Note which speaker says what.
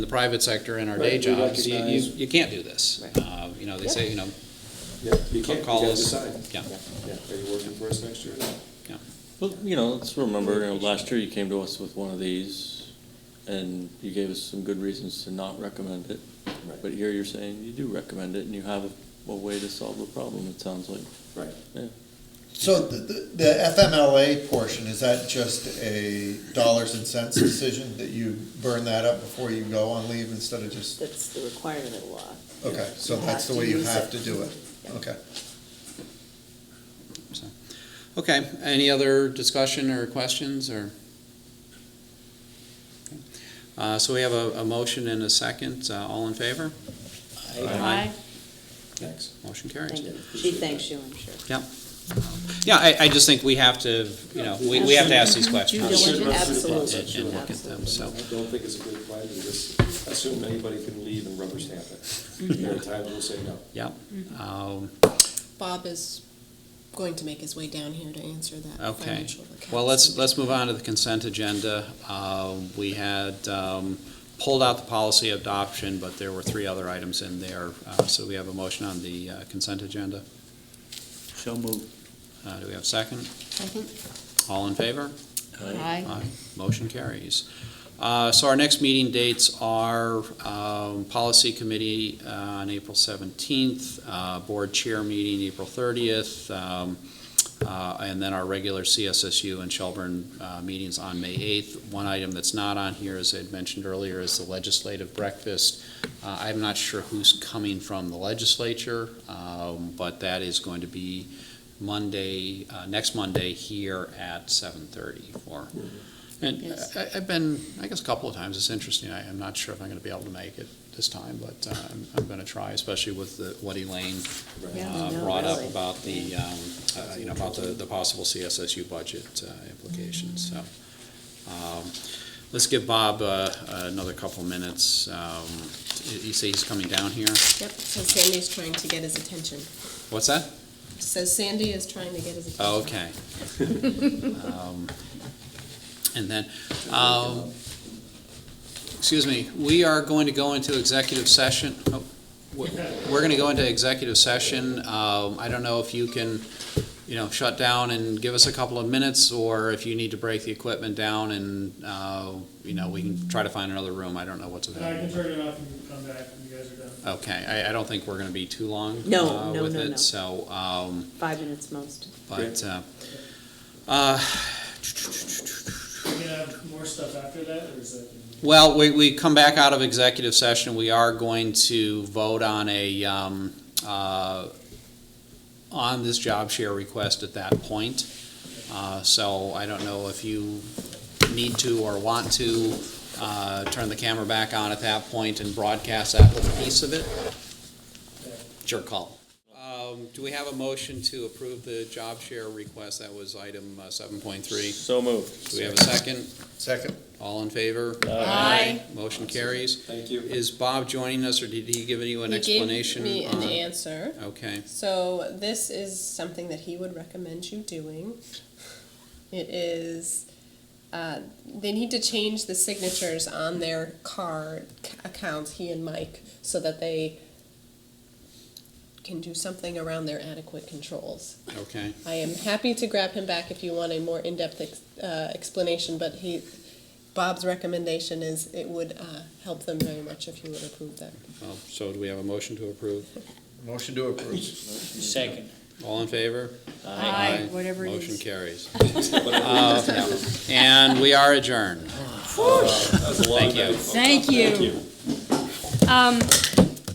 Speaker 1: the private sector and our
Speaker 2: Right,
Speaker 1: day
Speaker 2: we
Speaker 1: jobs, you, you,
Speaker 2: recognize-
Speaker 1: you can't do this.
Speaker 3: Right.
Speaker 1: Uh, you know, they say, you know,
Speaker 2: Yeah, you can't, you
Speaker 1: call
Speaker 2: gotta
Speaker 1: us.
Speaker 2: decide.
Speaker 1: Yeah.
Speaker 2: Yeah, are you working for us next year or not?
Speaker 1: yeah,
Speaker 4: Well, you know, let's remember, you know, last year you came to us with one of these, and you gave us some good reasons to not recommend it.
Speaker 2: Right.
Speaker 4: But here you're saying you do recommend it, and you have a, a way to solve the problem, it sounds like.
Speaker 2: Right.
Speaker 5: So the, the- the FMLA portion, is that just a dollars and cents decision that you burn that up before you go on leave instead of just,
Speaker 3: That's the requirement of law.
Speaker 5: okay, so
Speaker 3: You
Speaker 5: that's
Speaker 3: have
Speaker 5: the
Speaker 3: to
Speaker 5: way you
Speaker 3: use
Speaker 5: have
Speaker 3: it.
Speaker 5: to do it?
Speaker 3: Yeah.
Speaker 5: Okay.
Speaker 1: so. Okay, any other discussion or questions or? Uh, so we have a, a motion and a second, uh, all in favor? Aye.
Speaker 2: Thanks.
Speaker 1: Motion carries.
Speaker 3: Thank you. She thanks you, I'm sure.
Speaker 1: Yeah, I, I just think we have to, you know, we, we have to ask these
Speaker 3: Due
Speaker 1: questions.
Speaker 2: diligence.
Speaker 3: diligence,
Speaker 2: Absolutely.
Speaker 3: absolutely.
Speaker 1: And look at them, so.
Speaker 2: I don't think it's a good plan to just assume anybody can leave and rubber stamp it.
Speaker 1: Mm-hmm.
Speaker 2: There are times we'll say no.
Speaker 1: Yep, um,
Speaker 6: Bob is going to make his way down here to answer that
Speaker 1: Okay.
Speaker 6: financial account.
Speaker 1: Well, let's, let's move on to the consent agenda. Uh, We had um, pulled out the policy adoption, but there were three other items in there. Uh, So we have a motion on the uh, consent agenda.
Speaker 4: So moved.
Speaker 1: Uh, Do we have a second? All in favor? Aye. Motion carries. Uh, So our next meeting dates are um, Policy Committee uh, on April 17th, uh, Board Chair Meeting April 30th, um, uh, and then our regular CSSU and Shelburne uh, meetings on May 8th. One item that's not on here, as I had mentioned earlier, is the legislative breakfast. Uh, I'm not sure who's coming from the legislature, um, but that is going to be Monday, uh, next Monday here at 7:30 for and
Speaker 3: Yes.
Speaker 1: I, I've been, I guess, a couple of times, it's interesting, I, I'm not sure if I'm gonna be able to make it this time, but, uh, I'm, I'm gonna try, especially with the, what Elaine,
Speaker 3: Yeah, I
Speaker 1: uh,
Speaker 3: know,
Speaker 1: brought up
Speaker 3: really.
Speaker 1: about the, um, uh, you know, about the, the possible CSSU budget, uh, implications, so. Um, let's give Bob, uh, another couple minutes, um, you say he's coming down here,
Speaker 6: Yep, so Sandy's trying to get his attention.
Speaker 1: what's that?
Speaker 6: Says Sandy is trying to get his attention.
Speaker 1: Oh, Okay. Um, And then, um, excuse me, we are going to go into executive session. Oh, We're going to go into executive session. Um, I don't know if you can, you know, shut down and give us a couple of minutes, or if you need to break the equipment down and, uh, you know, we can try to find another room. I don't know what's
Speaker 7: I can
Speaker 1: available.
Speaker 7: turn it off and you can come back when you guys are done.
Speaker 1: Okay, I, I don't think we're going to be too long
Speaker 3: No,
Speaker 1: uh,
Speaker 3: no,
Speaker 1: with
Speaker 3: no, no.
Speaker 1: it, so, um,
Speaker 3: Five minutes most.
Speaker 1: but, uh, uh,
Speaker 7: We can have more stuff after that, or is that?
Speaker 1: well, we, we come back out of executive session, we are going to vote on a, um, uh, on this job share request at that point. Uh, so I don't know if you need to or want to, uh, turn the camera back on at that point and broadcast that little piece of it. It's your call. Um, do we have a motion to approve the job share request? That was item uh, seven point three.
Speaker 4: So moved.
Speaker 1: Do we have a second?
Speaker 5: Second?
Speaker 1: All in favor?
Speaker 6: Aye.
Speaker 1: Motion carries.
Speaker 2: Thank you.
Speaker 1: Is Bob joining us, or did he give you an explanation?
Speaker 6: He gave me
Speaker 1: on-
Speaker 6: an answer.
Speaker 1: Okay,
Speaker 6: So this is something that he would recommend you doing. It is, uh, they need to change the signatures on their card c- accounts, he and Mike, so that they can do something around their adequate controls.
Speaker 1: okay.
Speaker 6: I am happy to grab him back if you want a more in-depth ex- uh, explanation, but he, Bob's recommendation is it would uh, help them very much if you would approve that.
Speaker 1: Well, so do we have a motion to approve?
Speaker 5: Motion to approve.
Speaker 4: Second.
Speaker 1: All in favor?
Speaker 3: Aye, whatever it
Speaker 1: Motion
Speaker 3: is.
Speaker 1: carries.
Speaker 2: But I think
Speaker 1: Uh, yeah. And we are adjourned.
Speaker 2: that was a long
Speaker 1: Thank you.
Speaker 2: night.
Speaker 3: Thank you.
Speaker 2: Thank you.
Speaker 3: Um,